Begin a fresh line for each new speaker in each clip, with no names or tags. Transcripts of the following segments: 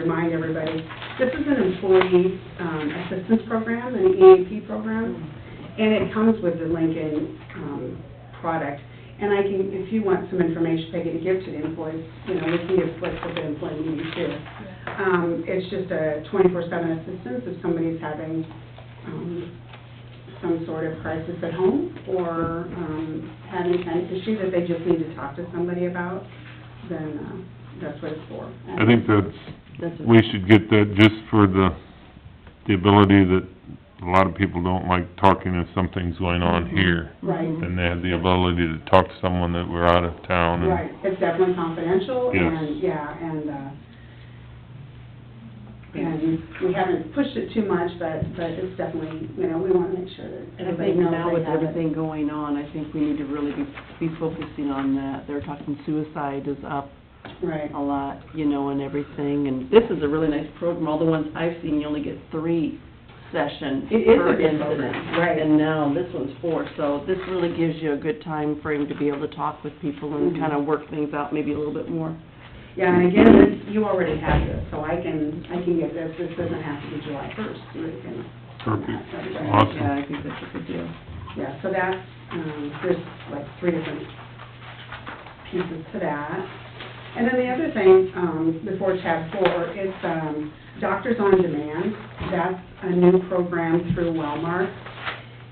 remind everybody, this is an employee um, assistance program, an EAP program, and it comes with the Lincoln um, product. And I can, if you want some information, Peggy, to give to the employees, you know, we can give slips with the employee meeting too. Um, It's just a 24/7 assistance if somebody's having um, some sort of crisis at home or um, having an issue that they just need to talk to somebody about, then uh, that's what it's for.
I think that's,
That's what-
we should get that just for the, the ability that a lot of people don't like talking if something's going on here.
Right.
And they have the ability to talk to someone that we're out of town and,
Right, it's definitely confidential,
Yes.
and, yeah, and, uh, and we haven't pushed it too much, but, but it's definitely, you know, we want to make sure that
I
everybody
think
knows
now with
they have it.
everything going on, I think we need to really be, be focusing on that. They're talking suicide is up
Right,
a lot, you know, and everything, and this is a really nice program. All the ones I've seen, you only get three sessions
It is a
per
good program,
incident.
right.
And now this one's four, so this really gives you a good time frame to be able to talk with people and
Mhm.
kind of work things out maybe a little bit more.
yeah, and again, this, you already have this, so I can, I can get this, this doesn't have to be July first, you can.
Perfect. Awesome.
Yeah, I think that's a good deal.
Yeah, so that's, um, there's like three different pieces to that. And then the other thing, um, before tab four, is, um, Doctors on Demand. That's a new program through Wellmark.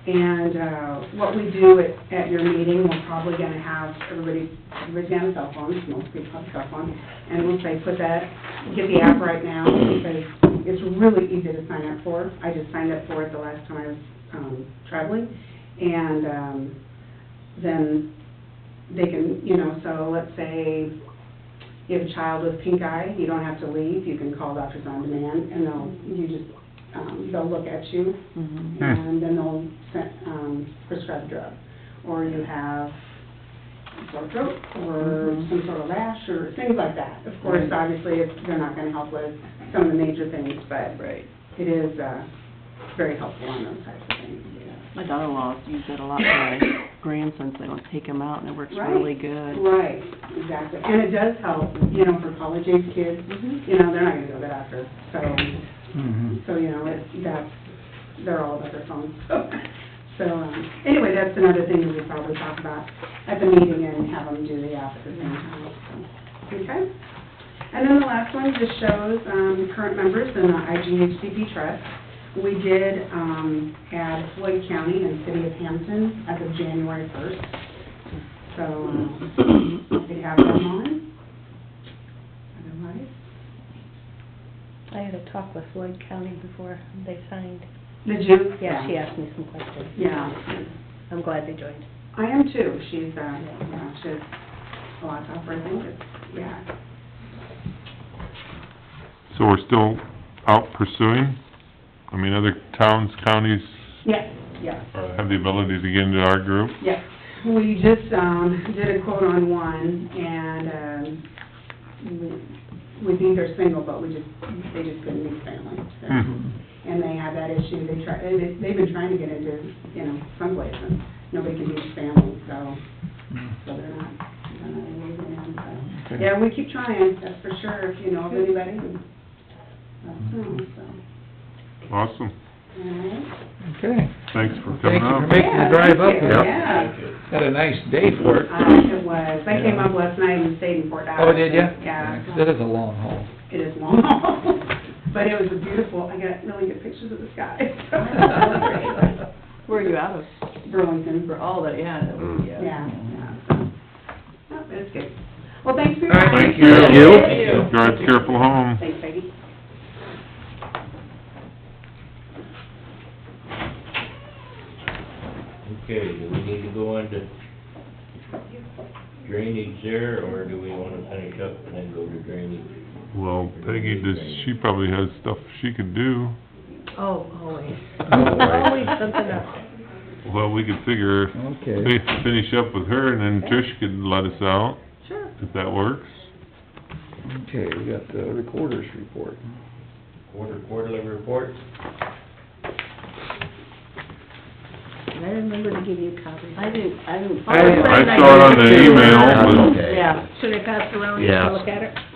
And, uh, what we do at, at your meeting, we're probably gonna have everybody, everybody's gonna have cell phones, most people have cell phones. And we'll say, put that, get the app right now, because it's really easy to sign up for. I just signed up for it the last time I was, um, traveling. And um, then they can, you know, so let's say you have a child with pink eye, you don't have to leave, you can call Doctors on Demand, and they'll, you just, um, they'll look at you,
Mhm.
and then they'll sen- um, prescribe a drug. Or you have sore throat, or
Mhm.
some sort of rash, or things like that. Of course,
Right.
obviously, it's- they're not gonna help with some of the major things, but
Right.
it is uh, very helpful on those types of things, yeah.
My daughter-in-law's used it a lot for my grandsons. They want to take them out, and it works
Right.
really good.
Right, exactly. And it does help, you know, for college-age kids,
Mm-hmm.
you know, they're not gonna go to the doctor, so,
Mm-hmm.
so, you know, it's, that's, they're all about their phones. So, um, anyway, that's another thing we could probably talk about at the meeting and have them do the app at the same time, so, okay? And then the last one just shows, um, current members in the IGHCP trust. We did, um, add Floyd County and City of Hampton as of January first, so, um, we have them on. Otherwise,
I had a talk with Floyd County before they signed.
did you?
Yeah, she asked me some questions.
Yeah,
I'm glad they joined.
I am too. She's, uh, yeah, she's a lot tougher, I think, it's- yeah.
so we're still out pursuing? I mean, other towns, counties
Yes, yes,
uh, have the ability to get into our group?
yes. We just, um, did a quote on one and, um, we- we think they're single, but we just, they just couldn't meet family. so.
Hmm.
Mm-hmm.
And they have that issue. They try, they, they've been trying to get into, you know, someplace and nobody can meet family, so. So they're not, they're not moving in, so.
Okay.
Yeah, we keep trying, that's for sure, if you know of anybody, and let us know, so.
Awesome.
Alright.
Okay.
Thanks for coming
Thank you for
out.
making the
Yeah,
drive up
thank you,
here.
Yeah,
Had a nice day for it.
Uh, it was, I came up last night and stayed in Fort Dodge.
Oh, did you?
Yeah.
That is a long haul.
It is long, but it was a beautiful, I got really good pictures of the sky.
Where are you out of?
Burlington,
For all that, yeah, that would be,
yeah,
uh,
yeah, so, Yep, it's good. Well, thanks for your
All right,
time.
thank you. Thank you. Thank you.
Drive careful home.
Thanks, Peggy.
Okay, do we need to go into drainage there, or do we wanna finish up and then go to drainage?
Well, Peggy, does, she probably has stuff she could do.
Oh, always.
Always.
Always something else.
Well, we could figure,
Okay.
fi- finish up with her, and then Trish could let us out. Sure. If that works.
Okay, we got the recorder's report.
Quarter, quarterly report?
And I remember to give you a copy.
I didn't, I didn't.
I saw it on the email,
Yeah.
Should I pass it around and
Yeah.
look at it?